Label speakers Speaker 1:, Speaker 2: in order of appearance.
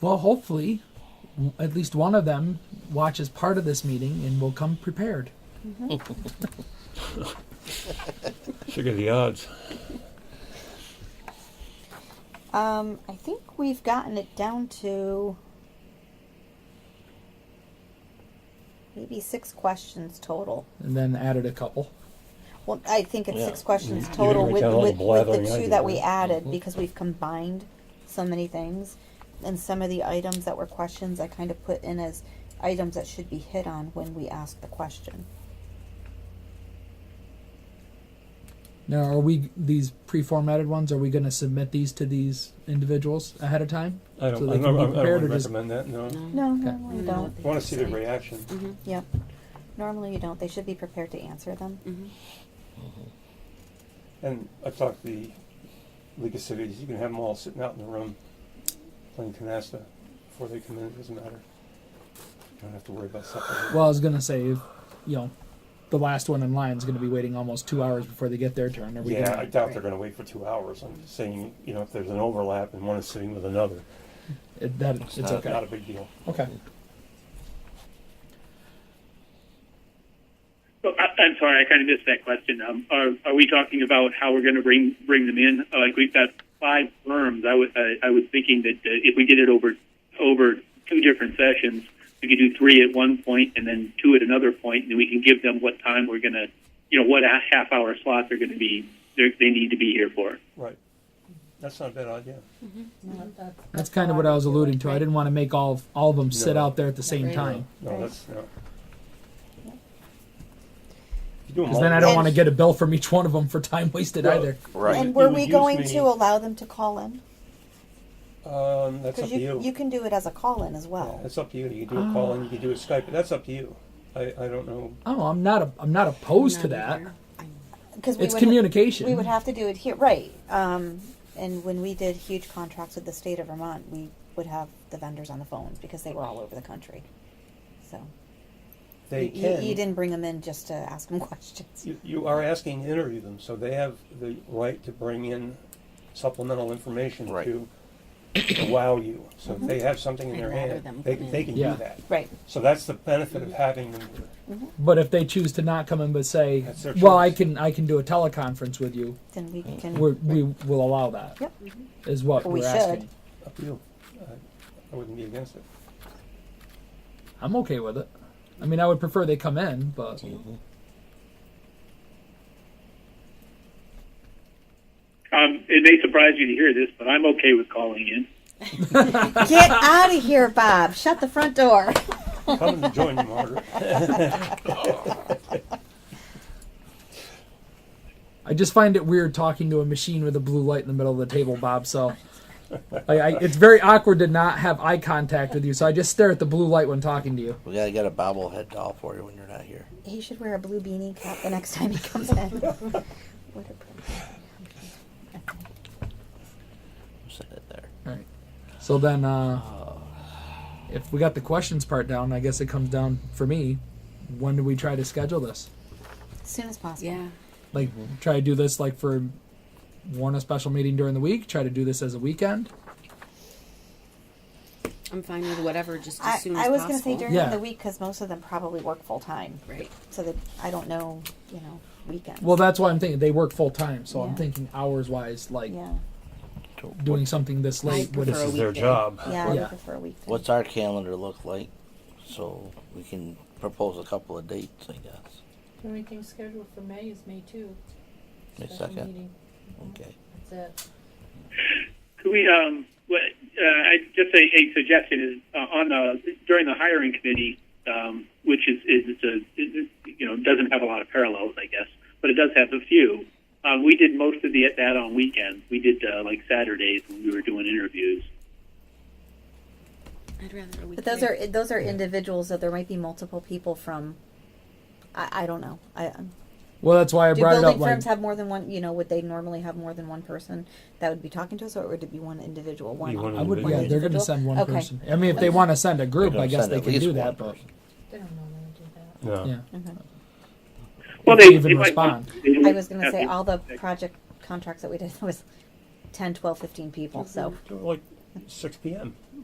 Speaker 1: Well, hopefully, w- at least one of them watches part of this meeting and will come prepared.
Speaker 2: Figure the odds.
Speaker 3: Um, I think we've gotten it down to maybe six questions total.
Speaker 1: And then added a couple.
Speaker 3: Well, I think it's
Speaker 2: Yeah.
Speaker 3: six questions
Speaker 2: You- you
Speaker 3: total
Speaker 2: didn't
Speaker 3: with,
Speaker 2: count all the
Speaker 3: with, with
Speaker 2: blathering I
Speaker 3: the two
Speaker 2: did,
Speaker 3: that we
Speaker 2: right? Mm-hmm.
Speaker 3: added because we've combined so many things. And some of the items that were questions I kind of put in as items that should be hit on when we ask the question.
Speaker 1: Now, are we these pre-formatted ones? Are we going to submit these to these individuals ahead of time?
Speaker 2: I don't,
Speaker 1: So
Speaker 2: I
Speaker 1: they can
Speaker 2: don't, I don't
Speaker 1: be
Speaker 2: wanna
Speaker 1: prepared or just-
Speaker 2: recommend that, no.
Speaker 3: No,
Speaker 1: Okay.
Speaker 3: normally you don't.
Speaker 2: I wanna see the reaction.
Speaker 3: Yep. Normally you don't. They should be prepared to answer them.
Speaker 2: And I talked to the League of Cities, you can have them all sitting out in the room playing canasta before they come in, it doesn't matter. You don't have to worry about something.
Speaker 1: Well, I was going to say, if, you know, the last one in line is going to be waiting almost two hours before they get their turn. Are we
Speaker 2: Yeah,
Speaker 1: gonna,
Speaker 2: I doubt they're gonna wait for two hours, I'm just saying, you know, if there's an overlap and one is sitting with another, uh,
Speaker 1: it, that, it's,
Speaker 4: It's not-
Speaker 1: okay.
Speaker 2: not a big deal.
Speaker 1: okay.
Speaker 5: Well, I- I'm sorry, I kind of missed that question. Um, are, are we talking about how we're going to bring bring them in? Uh, Like we've got five firms. I was I, I was thinking that uh, if we did it over over two different sessions, we could do three at one point and then two at another point, and we can give them what time we're going to, you know, what a- half hour slots are going to be they're- they need to be here for.
Speaker 2: Right. That's not a bad idea.
Speaker 1: That's kind of what I was alluding to. I didn't want to make all of, all of them sit
Speaker 2: No.
Speaker 1: out there at the same time
Speaker 2: No,
Speaker 3: Right.
Speaker 2: that's, no. If you do 'em
Speaker 1: because
Speaker 2: all
Speaker 1: then I
Speaker 2: at
Speaker 1: don't
Speaker 3: And-
Speaker 1: want to get a bill from each one of them for time wasted
Speaker 2: Well,
Speaker 1: either.
Speaker 4: Right.
Speaker 3: And were
Speaker 2: would
Speaker 3: we
Speaker 2: use
Speaker 3: going
Speaker 2: me-
Speaker 3: to allow them to call in?
Speaker 2: Um, that's up
Speaker 3: Because
Speaker 2: to
Speaker 3: you,
Speaker 2: you.
Speaker 3: you can do it as a call in as well.
Speaker 2: That's up to you. You can do a call and you can do a Skype, but that's up to you. I, I don't know.
Speaker 1: Oh, I'm not a, I'm not opposed to
Speaker 6: Not
Speaker 1: that.
Speaker 6: either.
Speaker 3: Because we
Speaker 1: It's
Speaker 3: would ha-
Speaker 1: communication.
Speaker 3: we would have to do it here, right? Um, and when we did huge contracts with the state of Vermont, we would have the vendors on the phones because they were all over the country. So
Speaker 2: They
Speaker 3: you,
Speaker 2: can.
Speaker 3: you didn't bring them in just to ask them questions.
Speaker 2: You, you are asking to interview them, so they have the right to bring in supplemental information
Speaker 4: Right.
Speaker 2: to, to wow you. So if they have something in
Speaker 6: I'd
Speaker 2: their
Speaker 6: rather
Speaker 2: hand,
Speaker 6: them
Speaker 2: they,
Speaker 6: come in.
Speaker 2: they can
Speaker 1: Yeah.
Speaker 2: do that.
Speaker 3: Right.
Speaker 2: So that's the benefit of having them here.
Speaker 1: But if they choose to not come in but say,
Speaker 2: That's their
Speaker 1: "Well, I
Speaker 2: choice.
Speaker 1: can I can do a teleconference with you,"
Speaker 3: Then we can.
Speaker 1: we're, we will allow that. Is
Speaker 3: Yep.
Speaker 1: what
Speaker 3: We
Speaker 1: are
Speaker 3: should.
Speaker 1: asking.
Speaker 2: Up to you. I, I wouldn't be against it.
Speaker 1: I'm okay with it. I mean, I would prefer they come in, but
Speaker 5: Um, it may surprise you to hear this, but I'm okay with calling in.
Speaker 3: Get out of here, Bob. Shut the front door.
Speaker 2: Come and join you, Margaret.
Speaker 1: I just find it weird talking to a machine with a blue light in the middle of the table, Bob. So. I, I, it's very awkward to not have eye contact with you, so I just stare at the blue light when talking to you.
Speaker 4: We gotta get a bobblehead doll for you when you're not here.
Speaker 3: He should wear a blue beanie cap the next time he comes in. what a prick.
Speaker 4: Set it there.
Speaker 1: So then, uh, if we got the questions part down, I guess it comes down for me. When do we try to schedule this?
Speaker 3: As soon as possible.
Speaker 6: Yeah.
Speaker 1: like try to do this like for warn a special meeting during the week try to do this as a weekend
Speaker 6: I'm fine with whatever, just
Speaker 3: I,
Speaker 6: as soon as
Speaker 3: I was going to
Speaker 6: possible.
Speaker 3: say during
Speaker 1: Yeah.
Speaker 3: the week because most of them probably work full time.
Speaker 6: Right.
Speaker 3: So that I don't know, you know, weekends.
Speaker 1: well that's why i'm thinking they work full time so i'm
Speaker 3: Yeah.
Speaker 1: thinking hours wise like
Speaker 3: yeah.
Speaker 1: doing something this late would
Speaker 6: prefer
Speaker 2: This
Speaker 6: a
Speaker 2: is their
Speaker 6: weekday.
Speaker 2: job.
Speaker 3: Yeah, I
Speaker 1: Yeah.
Speaker 3: would prefer a weekday.
Speaker 4: What's our calendar look like? So we can propose a couple of dates, I guess.
Speaker 7: The only thing scheduled for May is May two.
Speaker 4: May
Speaker 7: special
Speaker 4: second?
Speaker 7: meeting.
Speaker 4: Okay.
Speaker 7: That's it.
Speaker 5: Could we, um, what, uh, I just a, a suggestion is uh, on the during the hiring committee, um, which is is it's a is, you know doesn't have a lot of parallels, I guess, but it does have a few. Um, we did most of the that on weekends. We did uh, like Saturdays when we were doing interviews.
Speaker 6: I'd rather a weekday.
Speaker 3: But those are those are individuals, so there might be multiple people from. I, I don't know. I, I'm-
Speaker 1: well that's why i
Speaker 3: do
Speaker 1: brought it
Speaker 3: building
Speaker 1: up
Speaker 3: firms
Speaker 1: like
Speaker 3: have more than one? You know, would they normally have more than one person that would be talking to us, or would it be one individual? One.
Speaker 2: Be one
Speaker 1: i would
Speaker 2: individual.
Speaker 1: yeah they're gonna
Speaker 3: Individual?
Speaker 1: send one
Speaker 3: Okay.
Speaker 1: person i mean if they want to send a group
Speaker 4: They're
Speaker 1: i
Speaker 4: gonna
Speaker 1: guess
Speaker 4: send
Speaker 1: they
Speaker 4: at
Speaker 1: can
Speaker 4: least
Speaker 1: do that
Speaker 4: one
Speaker 1: but
Speaker 4: person.
Speaker 7: They don't normally do that.
Speaker 2: No.
Speaker 1: yeah
Speaker 5: Well,
Speaker 1: If
Speaker 5: they
Speaker 1: they even
Speaker 5: they might want- they
Speaker 3: I
Speaker 5: might
Speaker 3: was going to
Speaker 5: have
Speaker 3: say
Speaker 5: to-
Speaker 3: all the project contracts that we did was 10, 12, 15 people. So
Speaker 2: Like 6 p.m.